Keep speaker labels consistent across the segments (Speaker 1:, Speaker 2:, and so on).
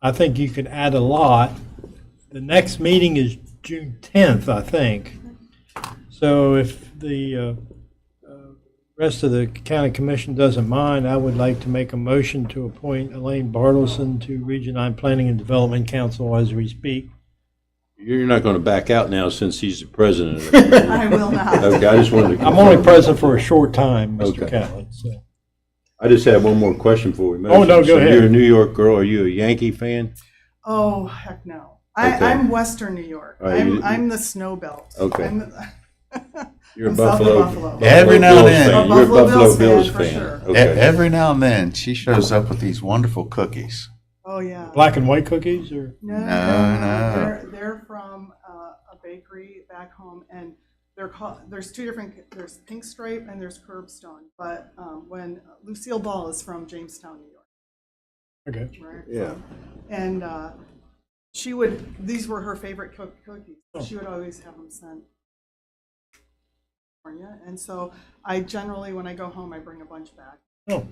Speaker 1: I think you could add a lot. The next meeting is June 10th, I think. So if the uh, uh, rest of the county commission doesn't mind, I would like to make a motion to appoint Elaine Bartleson to Region 9 Planning and Development Council as we speak.
Speaker 2: You're not going to back out now since he's the president. of the committee.
Speaker 3: I will not.
Speaker 2: Okay, I just wanted to.
Speaker 1: I'm only present for a short time, Mr.
Speaker 2: Okay.
Speaker 1: Catlin, so.
Speaker 2: I just had one more question before we move.
Speaker 1: Oh, no, go
Speaker 2: So
Speaker 1: ahead.
Speaker 2: You're a New York girl. Are you a Yankee fan?
Speaker 3: Oh, heck no. I,
Speaker 2: Okay.
Speaker 3: I'm Western New York.
Speaker 2: All right, you-
Speaker 3: I'm, I'm the snow belt.
Speaker 2: Okay.
Speaker 3: I'm the-
Speaker 2: You're a
Speaker 3: I'm South of
Speaker 2: Buffalo.
Speaker 3: Buffalo.
Speaker 2: Buffalo
Speaker 4: Every now and
Speaker 2: Bills
Speaker 4: then.
Speaker 2: fan.
Speaker 3: A
Speaker 2: You're a
Speaker 3: Buffalo
Speaker 2: Buffalo
Speaker 3: Bills fan,
Speaker 2: Bills
Speaker 3: for
Speaker 2: fan.
Speaker 3: sure.
Speaker 4: E-
Speaker 2: Okay.
Speaker 4: Every now and then, she shows up with these wonderful cookies.
Speaker 3: Oh, yeah.
Speaker 1: Black and white cookies or?
Speaker 3: No, no,
Speaker 4: No, no.
Speaker 3: They're, they're from uh, a bakery back home, and they're called. There's two different. There's Pink Stripe and there's Curbstone. But um, when Lucille Ball is from Jamestown, New York,
Speaker 1: Okay.
Speaker 3: right?
Speaker 2: Yeah.
Speaker 3: And uh, she would. These were her favorite cook- cookies. She would always have them sent. to California, And so I generally, when I go home, I bring a bunch back.
Speaker 1: Oh.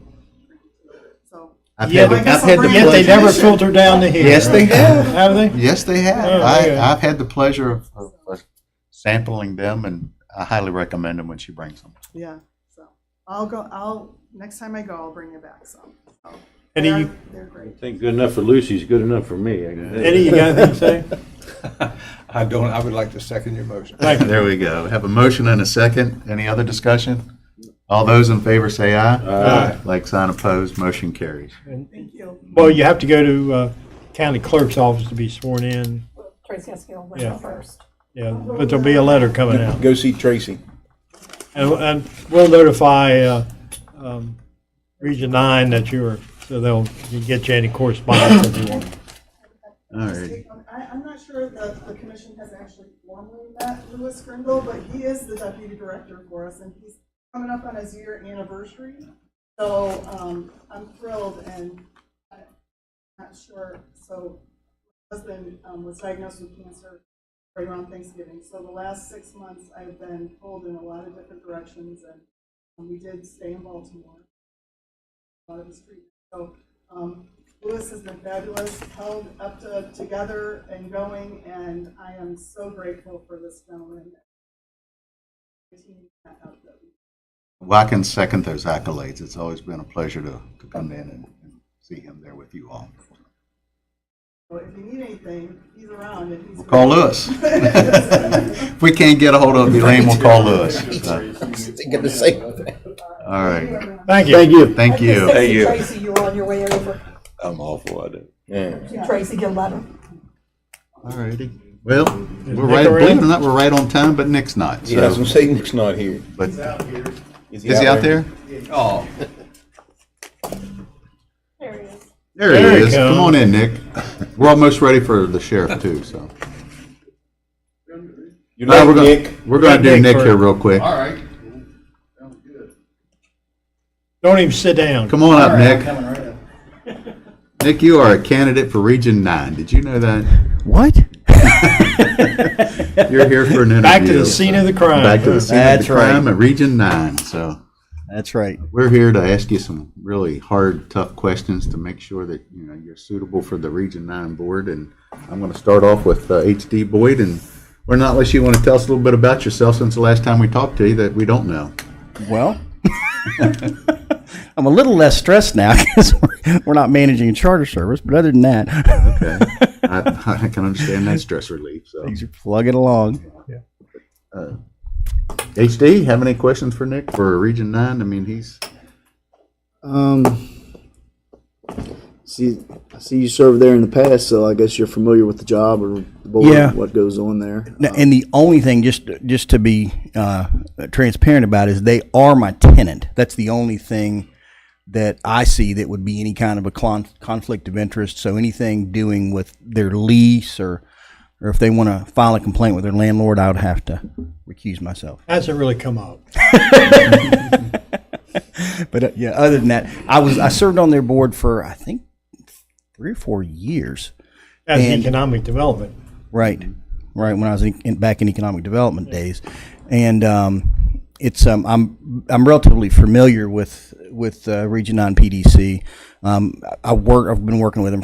Speaker 3: So
Speaker 4: I've
Speaker 1: Yeah,
Speaker 4: had the,
Speaker 1: I
Speaker 3: guess
Speaker 4: I've had
Speaker 3: I'll
Speaker 4: the
Speaker 3: bring it
Speaker 1: Yet they
Speaker 3: Congratulations.
Speaker 1: never
Speaker 4: pleasure.
Speaker 1: filter down to here.
Speaker 4: Yes, they have.
Speaker 1: Have they?
Speaker 4: Yes, they have.
Speaker 1: Oh, okay.
Speaker 4: I, I've had the pleasure of, of of sampling them, and I highly recommend them when she brings them.
Speaker 3: yeah. So I'll go. I'll next time I go, I'll bring you back some. So.
Speaker 1: Eddie,
Speaker 3: They're-
Speaker 1: you-
Speaker 3: They're great.
Speaker 2: I think good enough for Lucy's good enough for me. I can tell you.
Speaker 1: Eddie, you got anything to say?
Speaker 5: I don't, I would like to second your motion.
Speaker 1: Thank you.
Speaker 4: There we go. We have a motion and a second. Any other discussion? All those in favor say aye.
Speaker 2: Aye.
Speaker 4: Like sign opposed, motion carries.
Speaker 3: Thank you.
Speaker 1: Well, you have to go to uh, county clerk's office to be sworn in.
Speaker 6: Tracy Eskil went
Speaker 1: Yeah.
Speaker 6: out first.
Speaker 1: Yeah, but there'll be a letter coming out.
Speaker 5: Go see Tracy.
Speaker 1: And, and we'll notify, uh, um, Region Nine that you're, so they'll you can get you any correspondence if you want.
Speaker 4: All
Speaker 3: Just
Speaker 4: right.
Speaker 3: take on- I, I'm not sure that the commission has actually formally met Louis Grindle, but he is the deputy director for us, and he's coming up on his year anniversary. So, um, I'm thrilled and I'm not sure, so my husband, um, was diagnosed with cancer right around Thanksgiving. So the last six months, I've been pulled in a lot of different directions, and um, we did stay in Baltimore. A lot of his treatment. So, um, Lewis has been fabulous, held up to, together and going, and I am so grateful for this gentleman. The team that helped him.
Speaker 4: Well, I can second those accolades. It's always been a pleasure to, to come in and, and see him there with you all.
Speaker 3: So if you need anything, he's around and he's.
Speaker 4: We'll call Lewis. If we can't get a hold of Elaine, we'll call Lewis. So,
Speaker 7: Thinking the same thing.
Speaker 4: All right.
Speaker 1: Thank you.
Speaker 2: Thank you.
Speaker 4: Thank you.
Speaker 2: Thank you.
Speaker 6: Tracy, you were on your way over.
Speaker 2: I'm awful. I do.
Speaker 6: Tracy Gillette.
Speaker 4: All righty. Well,
Speaker 1: Nick
Speaker 4: we're right,
Speaker 1: around?
Speaker 4: believe it or not, we're right on time, but Nick's not.
Speaker 7: Yeah, I was
Speaker 4: So,
Speaker 7: gonna say Nick's not here.
Speaker 4: but is he out there?
Speaker 5: Oh,
Speaker 6: There he is.
Speaker 4: There
Speaker 1: There he
Speaker 4: he is. Come
Speaker 1: comes.
Speaker 4: on in, Nick. We're almost ready for the sheriff too, so.
Speaker 7: You're
Speaker 4: No,
Speaker 7: not
Speaker 4: we're gonna,
Speaker 7: Nick.
Speaker 4: we're gonna do
Speaker 1: Nick
Speaker 4: Nick
Speaker 1: first.
Speaker 4: here real quick.
Speaker 5: all right. Sounds good.
Speaker 1: Don't even sit down.
Speaker 4: Come on
Speaker 5: All
Speaker 4: up,
Speaker 5: right, I'm
Speaker 4: Nick.
Speaker 5: coming right up.
Speaker 4: Nick, you are a candidate for Region Nine. Did you know that?
Speaker 8: What?
Speaker 4: You're here for an interview.
Speaker 1: Back to the scene of the crime.
Speaker 4: Back to the scene of the
Speaker 8: That's right.
Speaker 4: crime at Region Nine, so.
Speaker 8: That's right.
Speaker 4: We're here to ask you some really hard, tough questions to make sure that, you know, you're suitable for the Region Nine Board. And I'm going to start off with uh, H.D. Boyd, and we're not unless you want to tell us a little bit about yourself since the last time we talked to you that we don't know.
Speaker 8: Well, I'm a little less stressed now because we're, we're not managing a charter service. But other than that,
Speaker 4: Okay. I I can understand that stress relief, so.
Speaker 8: things are plugging along.
Speaker 4: H.D., have any questions for Nick for Region Nine? I mean, he's,
Speaker 9: Um, see, I see you served there in the past, so I guess you're familiar with the job or the board,
Speaker 8: Yeah.
Speaker 9: what goes on there.
Speaker 8: Now, and the only thing, just just to be uh, transparent about, is they are my tenant. That's the only thing that I see that would be any kind of a con- conflict of interest. So anything doing with their lease or or if they want to file a complaint with their landlord, I would have to recuse myself.
Speaker 1: Hasn't really come up.
Speaker 8: But uh, yeah, other than that, I was I served on their board for I think three or four years.
Speaker 1: That's
Speaker 8: And-
Speaker 1: economic development.
Speaker 8: Right, right. When I was in, in, back in economic development days, and um, it's um, I'm I'm relatively familiar with with uh, Region Nine PDC. Um, I I work. I've been working with them